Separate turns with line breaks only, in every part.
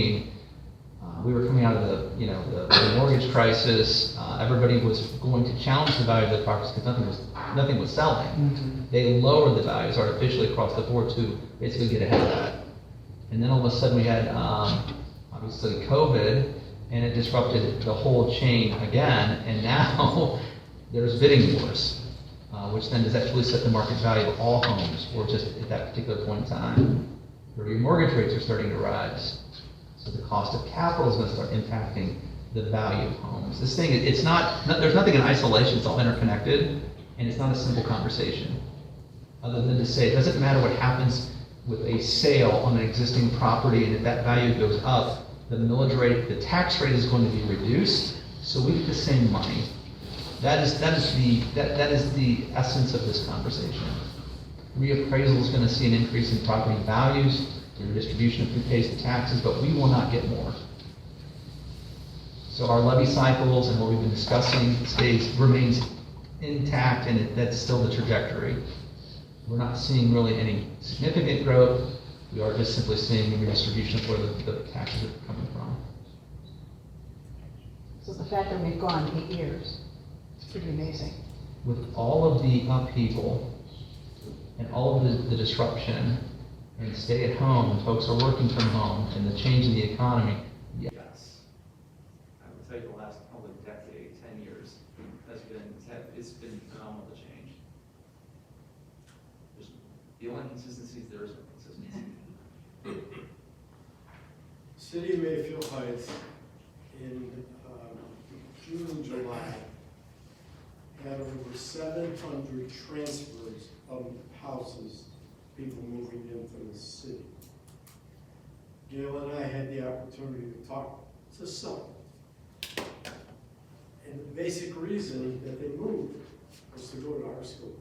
2016, uh, we were coming out of the, you know, the- the mortgage crisis, uh, everybody was going to challenge the value of the properties because nothing was, nothing was selling. They lowered the values artificially across the board to basically get ahead of that. And then all of a sudden, we had, um, obviously, COVID, and it disrupted the whole chain again, and now there's bidding wars, uh, which then does actually set the market value of all homes, or just at that particular point in time. The remortgage rates are starting to rise, so the cost of capital is gonna start impacting the value of homes. This thing, it- it's not, no- there's nothing in isolation, it's all interconnected, and it's not a simple conversation other than to say, it doesn't matter what happens with a sale on an existing property, and if that value goes up, the millage rate, the tax rate is going to be reduced, so we get the same money. That is, that is the, that, that is the essence of this conversation. Reappraisal is gonna see an increase in property values, the redistribution of who pays the taxes, but we will not get more. So our levy cycles and what we've been discussing stays, remains intact, and it- that's still the trajectory. We're not seeing really any significant growth. We are just simply seeing a redistribution of where the the taxes are coming from.
So the fact that we've gone eight years, it's pretty amazing.
With all of the upheaval and all of the- the disruption and stay at home, and folks are working from home, and the change in the economy, yeah,
Yes. I would say the last probably decade, ten years, has been, has- it's been phenomenal the change. There's, the only consistency is there is no consistency.
City of Mayfield Heights in um, June and July had over seven hundred transfers of houses, people moving in from the city. Gail and I had the opportunity to talk to some. And the basic reason that they moved was to go to our school.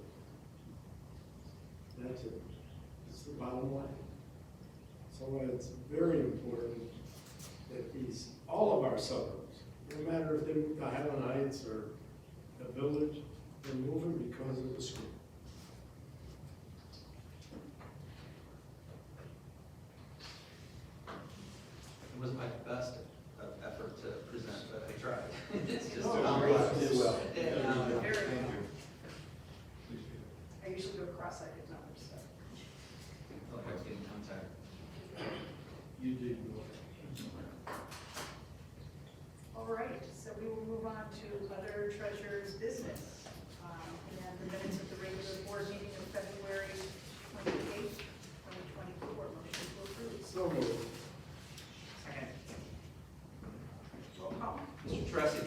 That's it. It's the bottom line. So it's very important that these, all of our suburbs, no matter if they move to Highland Heights or the village, they're moving because of the school.
It was my best of effort to present, but I tried. It's just.
No, you did well.
Yeah, um,
Thank
I usually go cross-eyed at numbers, so.
Look, I was getting tongue tied.
You did well.
All right, so we will move on to other treasurer's business. Um, And the minutes of the regular board meeting of February twenty-eighth, twenty twenty-four, motion to approve.
So moved.
Second. Roll call.
Mr. Tressi,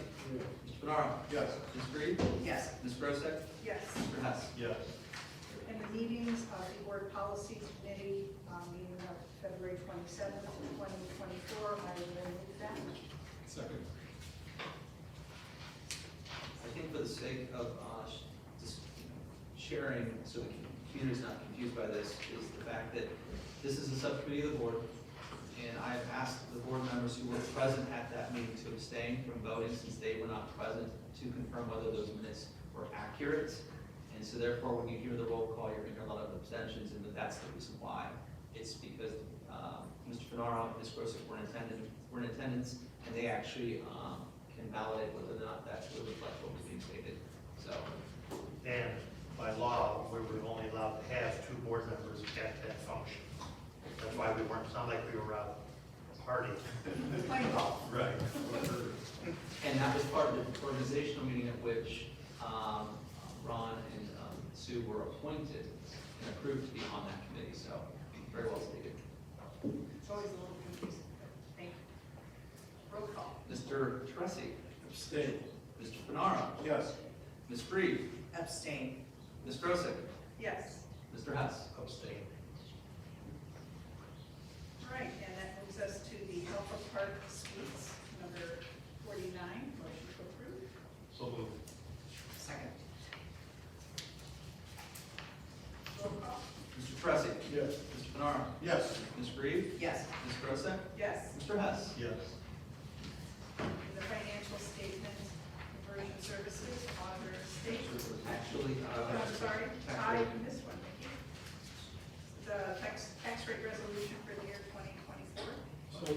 Mr. Bernaro,
Yes.
Ms. Reed,
Yes.
Ms. Grosek,
Yes.
Mr. Hess.
Yes.
And the meetings of the board policy committee, um, meeting of February twenty-seventh, twenty twenty-four, I will move that.
Second.
I think for the sake of uh, sh- just you know, sharing, so the community's not confused by this, is the fact that this is a subcommittee of the board, and I have asked the board members who were present at that meeting to abstain from voting since they were not present to confirm whether those minutes were accurate. And so therefore, when you hear the roll call, you're gonna hear a lot of abstentions, and that's the reason why. It's because um, Mr. Fenaro and Ms. Grosick were in attendance, were in attendance, and they actually um, can validate whether or not that would reflect what was being stated. So,
And by law, we were only allowed to have two board members at that function. That's why we weren't, it's not like we were out partying.
Plain call.
Right.
and that was part of the organizational meeting at which um, Ron and um, Sue were appointed and approved to be on that committee, so very well stated.
It's always a little confusing, but thank you. Roll call.
Mr. Tressi,
Abstain.
Mr. Fenaro,
Yes.
Ms. Freed,
Abstain.
Ms. Grosick,
Yes.
Mr. Hess.
Abstain.
All right, and that moves us to the Alpha Park Suites, number forty-nine, motion to approve.
So moved.
Second. Roll call.
Mr. Tressi,
Yes.
Mr. Fenaro,
Yes.
Ms. Freed,
Yes.
Ms. Grosick,
Yes,
Mr. Hess.
Yes.
the financial statement, conversion services, auditor statement.
Actually, uh.
Oh, I'm sorry,
Actually-
I missed one, thank you. The tax, tax rate resolution for the year